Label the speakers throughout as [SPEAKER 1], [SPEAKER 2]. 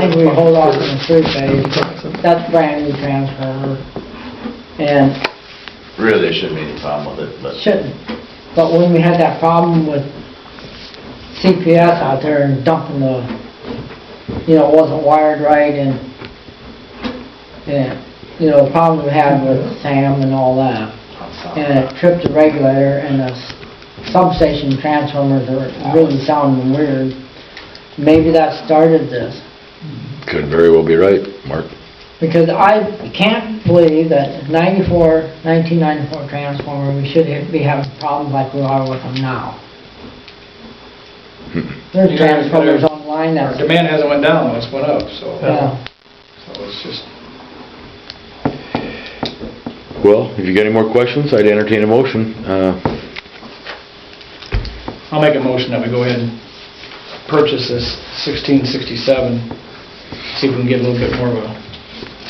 [SPEAKER 1] think we hold off on the street pave, that's brand new transfer, and
[SPEAKER 2] Really, there shouldn't be any problem with it, but.
[SPEAKER 1] shouldn't. But when we had that problem with CPS out there and dumping the, you know, it wasn't wired right and, and, you know, the problem we had with Sam and all that, and it tripped the regulator and the substation transformers are really sounding weird. Maybe that started this.
[SPEAKER 3] Could very well be right, Mark.
[SPEAKER 1] Because I can't believe that 94, 1994 transformer, we should ha- be having problems like we are with them now. There's
[SPEAKER 3] Hmm.
[SPEAKER 4] You know,
[SPEAKER 1] transformers
[SPEAKER 4] there's-
[SPEAKER 1] online
[SPEAKER 4] Our
[SPEAKER 1] that's,
[SPEAKER 4] demand hasn't went down, it's went up, so,
[SPEAKER 1] yeah,
[SPEAKER 4] so it's just,
[SPEAKER 3] Well, if you got any more questions, I'd entertain a motion. Uh,
[SPEAKER 4] I'll make a motion that we go ahead and purchase this sixteen sixty-seven, see if we can get a little bit more of a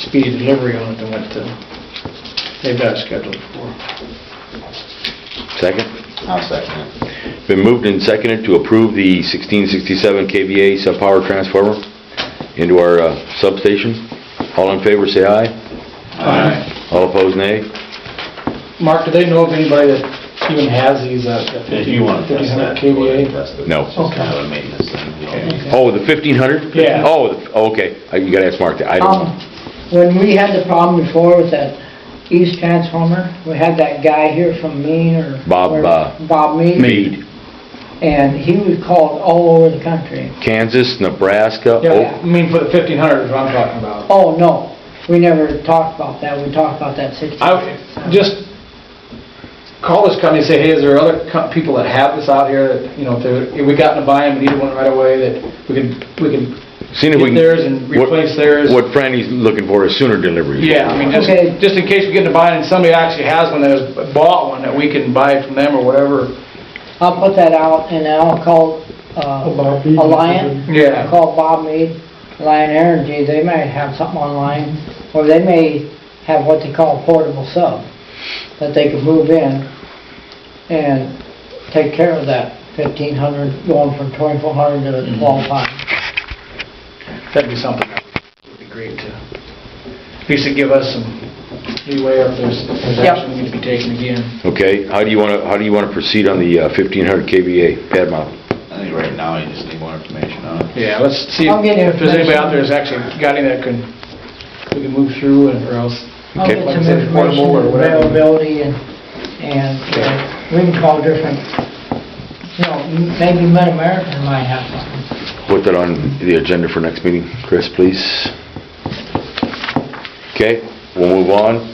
[SPEAKER 4] speedy delivery on it than what uh, they've got scheduled for.
[SPEAKER 3] Second.
[SPEAKER 2] I'll second it.
[SPEAKER 3] Been moved and seconded to approve the 1667 KVA sub-power transformer into our uh, substation. All in favor, say aye. All opposed, nay.
[SPEAKER 4] Uh, Mark, do they know of anybody that even has these, uh, the
[SPEAKER 2] If you want to test
[SPEAKER 4] 1500
[SPEAKER 2] that.
[SPEAKER 4] KVA?
[SPEAKER 2] test it.
[SPEAKER 3] No.
[SPEAKER 2] It's just kind of a maintenance thing. we don't need
[SPEAKER 3] Oh, the 1500?
[SPEAKER 4] Yeah.
[SPEAKER 3] Oh, the- oh, okay. I- You gotta ask Mark that. I don't
[SPEAKER 1] um,
[SPEAKER 3] know.
[SPEAKER 1] when we had the problem before with that east transformer, we had that guy here from Mean or.
[SPEAKER 3] Bob,
[SPEAKER 1] where-
[SPEAKER 3] uh,
[SPEAKER 1] Bob Mead,
[SPEAKER 3] Mead,
[SPEAKER 1] and he was called all over the country.
[SPEAKER 3] Kansas, Nebraska, oh,
[SPEAKER 4] Yeah, I
[SPEAKER 3] Oak.
[SPEAKER 4] mean, for the fifteen hundred is what I'm talking about.
[SPEAKER 1] Oh, no, we never talked about that, we talked about that 60.
[SPEAKER 4] I, would just call this company, and say, hey, is there other co- people that have this out here that, you know, if they're, if we got to buy them, we need one right away, that we can, we can
[SPEAKER 3] Seeing if we can-
[SPEAKER 4] get theirs and
[SPEAKER 3] what-
[SPEAKER 4] replace theirs.
[SPEAKER 3] What Franny's looking for is sooner delivery.
[SPEAKER 4] Yeah, I mean, just,
[SPEAKER 1] Okay.
[SPEAKER 4] just in case we get to buy it and somebody actually has one that has bought one, that we can buy from them or whatever.
[SPEAKER 1] I'll put that out and then I'll call, uh, Alliant.
[SPEAKER 4] Yeah.
[SPEAKER 1] Call Bob Mead, Alliant Energy, they might have something online, or they may have what they call a portable sub, that they could move in and take care of that fifteen hundred, going from twenty-four hundred
[SPEAKER 4] Mm-hmm.
[SPEAKER 1] to twelve five.
[SPEAKER 4] That'd be something, that would be great to, at least to give us some leeway if there's, if there's
[SPEAKER 1] Yep.
[SPEAKER 4] action we need to be taken again.
[SPEAKER 3] Okay, how do you wanna, how do you wanna proceed on the uh, 1500 KVA pad mount?
[SPEAKER 2] it. I think right now, you just need more information on it.
[SPEAKER 4] Yeah, let's see
[SPEAKER 1] I'll get
[SPEAKER 4] if there's anybody
[SPEAKER 1] information.
[SPEAKER 4] out there that's actually got any that can, we can move through and, or else.
[SPEAKER 1] I'll
[SPEAKER 3] Okay.
[SPEAKER 1] get
[SPEAKER 4] Like I
[SPEAKER 1] some
[SPEAKER 4] said,
[SPEAKER 1] information,
[SPEAKER 4] portable or whatever.
[SPEAKER 1] availability and, and uh, we can call different, you know, maybe Mid-American might have something.
[SPEAKER 3] Put that on the agenda for next meeting, Chris, please. Okay, we'll move on.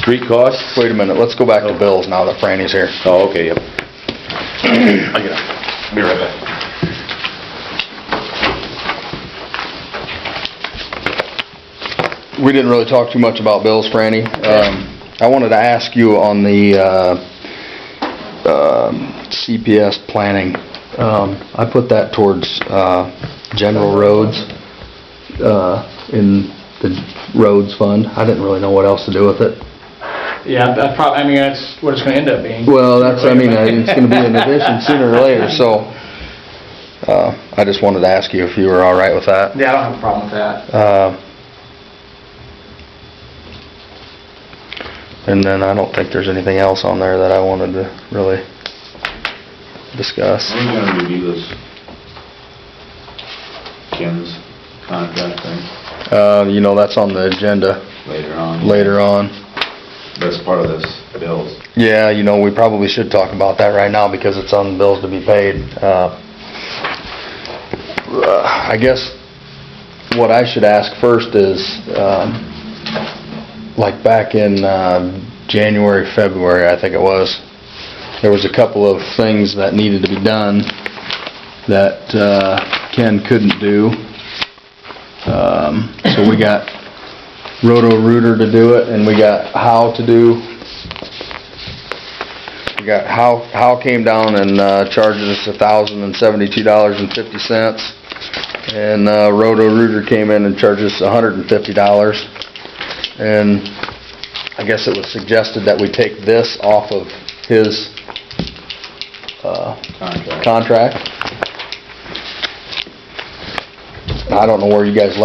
[SPEAKER 3] Street costs?
[SPEAKER 5] Wait a minute, let's go back to bills now that Franny's here.
[SPEAKER 3] Oh, okay, yep.
[SPEAKER 2] I get it. Be right back.
[SPEAKER 5] We didn't really talk too much about bills, Franny. Um, I wanted to ask you on the uh, um, CPS planning. Um, I put that towards uh, general roads uh, in the roads fund. I didn't really know what else to do with it.
[SPEAKER 4] Yeah, that probably, I mean, that's what it's gonna end up being.
[SPEAKER 5] Well, that's, I mean, uh, it's gonna be an addition sooner or later, so uh, I just wanted to ask you if you were all right with that.
[SPEAKER 4] Yeah, I don't have a problem with that.
[SPEAKER 5] Uh, And then I don't think there's anything else on there that I wanted to really discuss.
[SPEAKER 2] Are we gonna review this? Ken's contract thing
[SPEAKER 5] Uh, You know, that's on the agenda
[SPEAKER 2] later on.
[SPEAKER 5] later on.
[SPEAKER 2] That's part of this bills.
[SPEAKER 5] Yeah, you know, we probably should talk about that right now because it's on bills to be paid. Uh, uh, I guess what I should ask first is, um, like back in um, January, February, I think it was, there was a couple of things that needed to be done that uh, Ken couldn't do. Um, So we got Roto-Rooter to do it and we got Howe to do we got Hal, Hal came down and uh, charged us a thousand and seventy-two dollars and fifty cents. And uh, Roto Rooter came in and charged us a hundred and fifty dollars. And I guess it was suggested that we take this off of his uh,
[SPEAKER 2] Contract.
[SPEAKER 5] contract. I don't know where you guys left